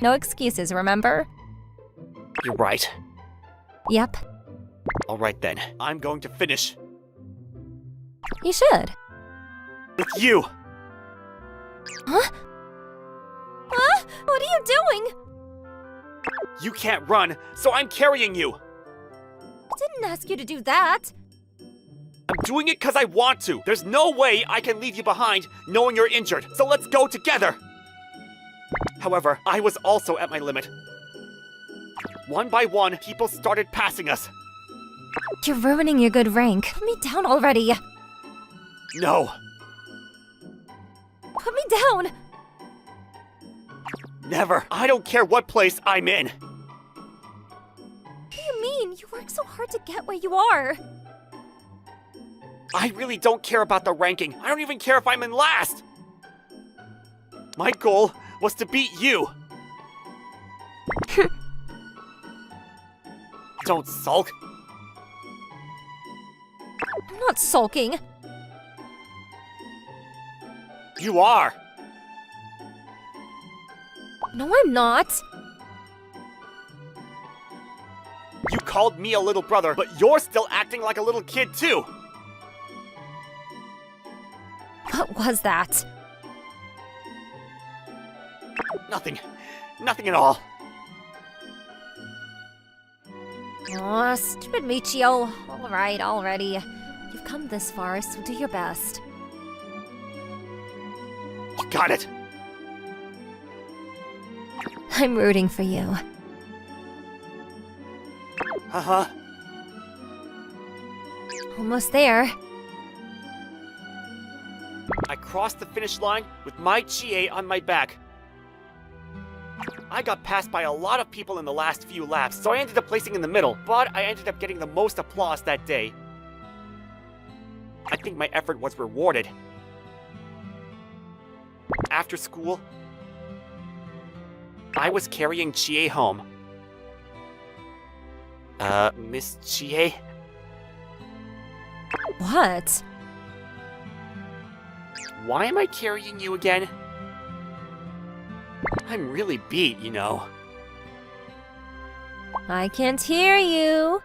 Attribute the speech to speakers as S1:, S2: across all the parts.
S1: No excuses, remember?
S2: You're right.
S1: Yep,
S2: Alright then. I'm going to finish.
S1: you should.
S2: With you!
S1: Huh? Huh? What are you doing?
S2: You can't run, so I'm carrying you!
S1: I didn't ask you to do that.
S2: I'm doing it because I want to! There's no way I can leave you behind knowing you're injured, so let's go together! However, I was also at my limit. One by one, people started passing us.
S1: You're ruining your good rank. Put me down already.
S2: No,
S1: Put me down.
S2: never. I don't care what place I'm in.
S1: What do you mean? You work so hard to get where you are.
S2: I really don't care about the ranking. I don't even care if I'm in last. My goal was to beat you. don't sulk.
S1: I'm not sulking.
S2: You are.
S1: No, I'm not.
S2: You called me a little brother, but you're still acting like a little kid, too.
S1: What was that?
S2: Nothing. Nothing at all.
S1: Aw, stupid Michio. Alright, already. You've come this far, so do your best.
S2: You got it.
S1: I'm rooting for you.
S2: Uh huh.
S1: Almost there.
S2: I crossed the finish line with my Chie on my back. I got passed by a lot of people in the last few laps, so I ended up placing in the middle, but I ended up getting the most applause that day. I think my effort was rewarded. After school, I was carrying Chie home. Uh, Miss Chie?
S1: What?
S2: Why am I carrying you again? I'm really beat, you know.
S1: I can't hear you.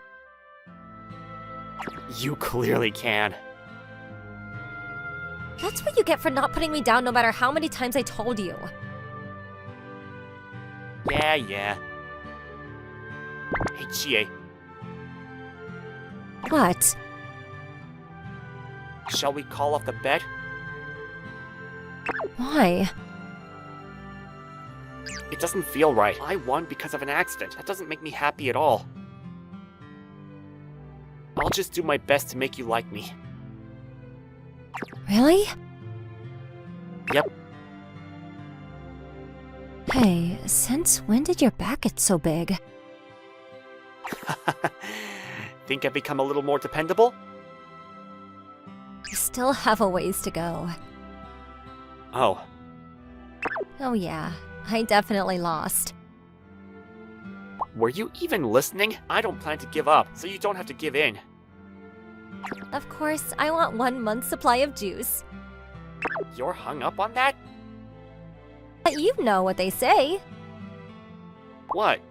S2: You clearly can.
S1: That's what you get for not putting me down no matter how many times I told you.
S2: Yeah, yeah. Hey, Chie,
S1: What?
S2: shall we call off the bet?
S1: Why?
S2: It doesn't feel right. I won because of an accident. That doesn't make me happy at all. I'll just do my best to make you like me.
S1: Really?
S2: Yep.
S1: Hey, since when did your back get so big?
S2: Think I've become a little more dependable?
S1: You still have a ways to go.
S2: Oh,
S1: Oh, yeah. I definitely lost.
S2: were you even listening? I don't plan to give up, so you don't have to give in.
S1: Of course, I want one month's supply of juice.
S2: You're hung up on that?
S1: But you know what they say
S2: What?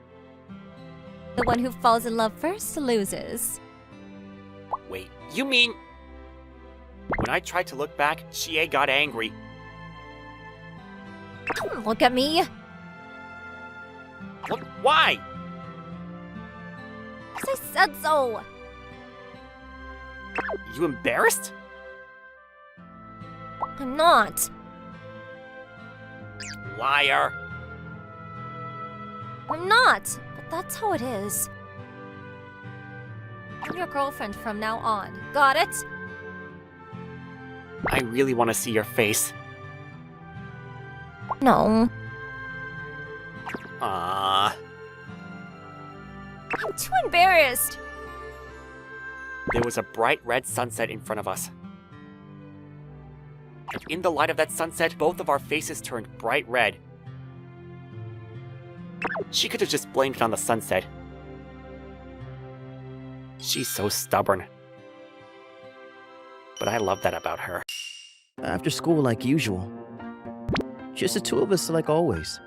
S1: the one who falls in love first loses.
S2: Wait, you mean. When I tried to look back, Chie got angry.
S1: Don't look at me!
S2: What? Why?
S1: 'cause I said so!
S2: You embarrassed?
S1: I'm not.
S2: Liar.
S1: I'm not! But that's how it is. I'm your girlfriend from now on. Got it?
S2: I really want to see your face.
S1: No.
S2: Ah.
S1: I'm too embarrassed.
S2: There was a bright red sunset in front of us. And in the light of that sunset, both of our faces turned bright red. She could have just blamed it on the sunset. She's so stubborn. But I love that about her.
S3: After school, like usual. Just the two of us, like always.